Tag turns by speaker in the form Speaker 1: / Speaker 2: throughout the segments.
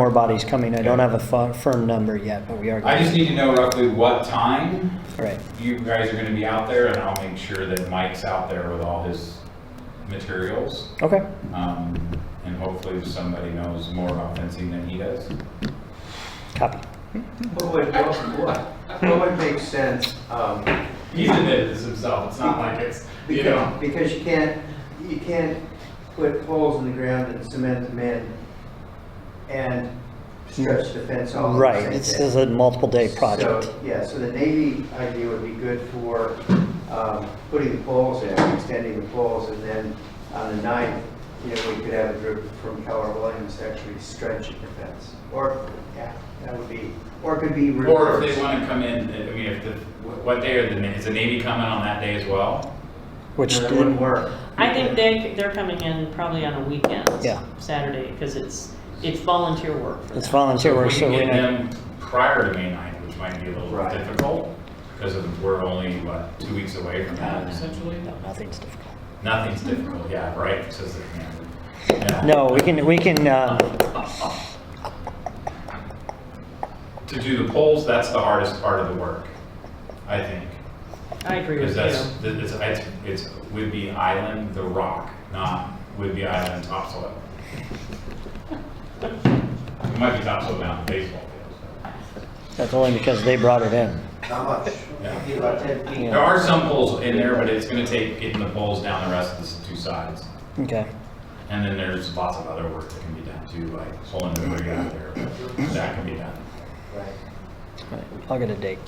Speaker 1: More bodies coming. I don't have a fi- firm number yet, but we are.
Speaker 2: I just need to know roughly what time
Speaker 1: All right.
Speaker 2: you guys are gonna be out there, and I'll make sure that Mike's out there with all his materials.
Speaker 1: Okay.
Speaker 2: Um, and hopefully somebody knows more about fencing than he does.
Speaker 1: Copy.
Speaker 3: What would, what, what would make sense, um,
Speaker 2: He's admitted this himself, it's not like it's, you know.
Speaker 3: because, because you can't, you can't put holes in the ground and cement them in and stretch the fence all at the
Speaker 1: Right.
Speaker 3: same
Speaker 1: It's,
Speaker 3: time.
Speaker 1: it's a multiple day project.
Speaker 3: So, Yeah, so the Navy idea would be good for, um, putting the poles in, extending the poles, and then on the ninth, you know, we could have a group from Keller Williams actually stretching the fence, or, yeah, that would be, or it could
Speaker 2: Or
Speaker 3: be
Speaker 2: if
Speaker 3: reversed.
Speaker 2: they wanna come in, I mean, if the, what day are the, is the Navy coming on that day as well?
Speaker 1: Which
Speaker 3: No, that
Speaker 1: did-
Speaker 3: wouldn't work.
Speaker 4: I think they, they're coming in probably on a weekend.
Speaker 1: Yeah.
Speaker 4: Saturday, because it's, it's volunteer work for
Speaker 1: it's
Speaker 4: them.
Speaker 1: volunteer work, so
Speaker 2: If we
Speaker 1: we
Speaker 2: can get
Speaker 1: know.
Speaker 2: them prior to May ninth, which might be a little
Speaker 3: Right.
Speaker 2: difficult, because of- we're only, what, two weeks away from that essentially?
Speaker 1: No, nothing's difficult.
Speaker 2: Nothing's difficult, yeah, right, says the commander.
Speaker 1: No, we can, we can, uh,
Speaker 2: To do the polls, that's the hardest part of the work, I think.
Speaker 4: I agree
Speaker 2: Because
Speaker 4: with
Speaker 2: that's,
Speaker 4: you.
Speaker 2: th- it's, it's, it's Whidbey Island, the rock, not Whidbey Island topsoil. It might be topsoil down the baseball field.
Speaker 1: that's only because they brought it in.
Speaker 3: How much?
Speaker 2: Yeah.
Speaker 3: Be about ten feet.
Speaker 2: There are some poles in there, but it's gonna take getting the poles down the rest of the s- two sides.
Speaker 1: Okay.
Speaker 2: And then there's lots of other work that can be done too, like pulling the rig out of there, but that can be done.
Speaker 3: Right.
Speaker 1: All right, I'll get a date.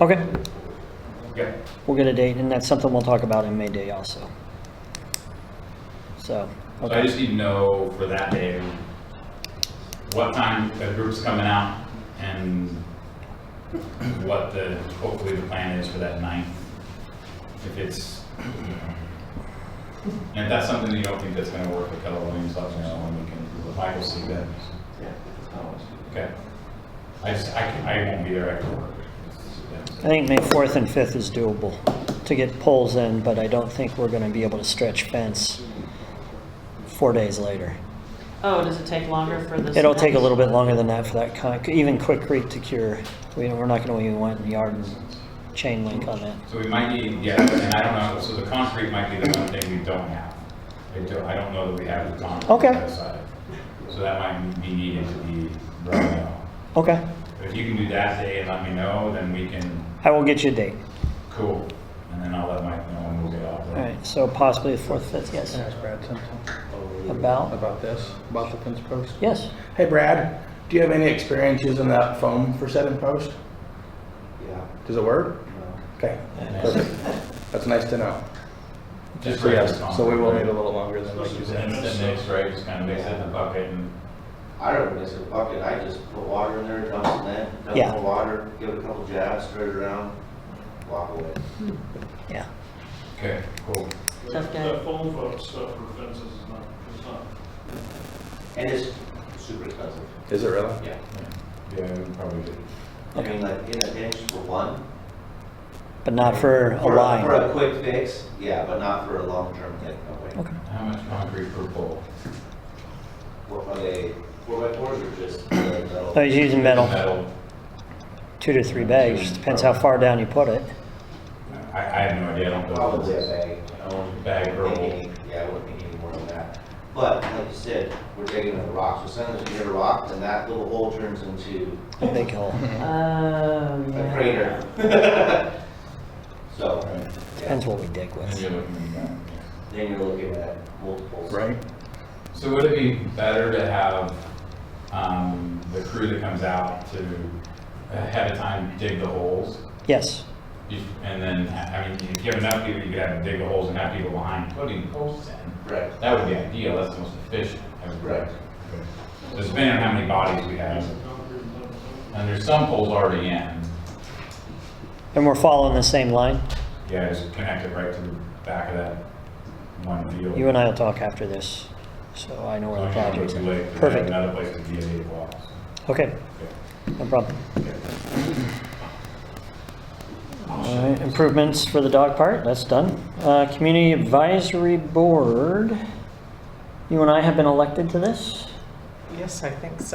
Speaker 1: Okay.
Speaker 2: Okay.
Speaker 1: We'll get a date and that's something we'll talk about in May Day also. So,
Speaker 2: So I
Speaker 1: okay.
Speaker 2: just need to know for that day, what time the group's coming out and what the, hopefully the plan is for that night. If it's, you know. and if that's something that you don't think that's gonna work with Keller Williams, let me know and we can, Michael see that.
Speaker 3: Yeah.
Speaker 2: Okay. I just, I, can- I won't be there, I can work.
Speaker 1: I think May 4th and 5th is doable to get poles in, but I don't think we're going to be able to stretch fence four days later.
Speaker 4: Oh, does it take longer for this?
Speaker 1: It'll take a little bit longer than that for that, con- even quick creek to cure. We- We're not going to even want yard and chain link on that.
Speaker 2: So we might need, yeah, and I don't know, so the concrete might be the one thing we don't have. I don't, I don't know that we have the concrete.
Speaker 1: Okay.
Speaker 2: outside. So that might be needed to be brought out.
Speaker 1: Okay,
Speaker 2: But if you can do that day and let me know, then we can,
Speaker 1: I will get you a date.
Speaker 2: cool. And then I'll let Mike know and we'll get off
Speaker 1: All
Speaker 2: there.
Speaker 1: right, so possibly the 4th, 5th, yes.
Speaker 5: Can I ask Brad something
Speaker 1: About,
Speaker 5: about this, about the fence post?
Speaker 1: yes.
Speaker 5: Hey Brad, do you have any experience using that foam for setting post?
Speaker 3: Yeah.
Speaker 5: Does it work?
Speaker 3: no.
Speaker 5: Okay, perfect. That's nice to know.
Speaker 2: Just
Speaker 5: So yes,
Speaker 2: regular
Speaker 5: So we will need
Speaker 2: concrete,
Speaker 5: a little longer
Speaker 2: right?
Speaker 5: than we
Speaker 2: Just
Speaker 5: usually.
Speaker 2: Instant mix, right, just kind of mix it in the bucket and,
Speaker 6: I don't miss a bucket, I just put water in there, dump some in, dump
Speaker 1: Yeah.
Speaker 6: more water, give it a couple jabs, spread it around, walk away.
Speaker 1: Yeah,
Speaker 2: okay, cool.
Speaker 4: Tough guy.
Speaker 7: That phone book stuff for fences is not, is not
Speaker 6: And it's super expensive,
Speaker 5: Is it really?
Speaker 6: yeah.
Speaker 2: Yeah, we probably did.
Speaker 6: I mean, like, in a pinch for one.
Speaker 1: but not for a line.
Speaker 6: For a quick fix, yeah, but not for a long-term thing, no way.
Speaker 1: Okay.
Speaker 2: How much concrete per pole?
Speaker 6: What are they, four by fours or just uh, metal?
Speaker 1: I was using metal,
Speaker 2: Metal.
Speaker 1: two to three bags, depends how far down you put it.
Speaker 2: I, I have no idea, I don't know.
Speaker 6: Probably a bag, you know.
Speaker 2: Bag or roll.
Speaker 6: maybe, Yeah, I wouldn't need any more than that. But like you said, we're digging into rocks, so sometimes you hit a rock, then that little hole turns into
Speaker 1: A big hole.
Speaker 4: Oh,
Speaker 6: a
Speaker 4: yeah.
Speaker 6: crater. So, yeah,
Speaker 1: Depends what we dig
Speaker 2: And
Speaker 1: with.
Speaker 2: you're looking at that.
Speaker 6: then you're looking at multiples.
Speaker 5: Right?
Speaker 2: So would it be better to have um, the crew that comes out to ahead of time dig the holes?
Speaker 1: Yes,
Speaker 2: Be- And then, I mean, if you have enough people, you could have them dig the holes and have people behind putting posts in.
Speaker 6: Right.
Speaker 2: That would be ideal, that's the most efficient. I would
Speaker 6: Right.
Speaker 2: think. So it's depending on how many bodies we have,
Speaker 7: concrete and metal.
Speaker 2: and there's some poles already in,
Speaker 1: and we're following the same line.
Speaker 2: yeah, just connect it right to the back of that one field.
Speaker 1: You and I will talk after this, so I know where the project's
Speaker 2: Too late,
Speaker 1: at.
Speaker 2: we have
Speaker 1: Perfect,
Speaker 2: Another place to be at eight blocks.
Speaker 1: okay,
Speaker 2: Okay.
Speaker 1: no problem. All right, improvements for the dog part, that's done. Uh, Community Advisory Board, you and I have been elected to this?
Speaker 8: Yes, I think so.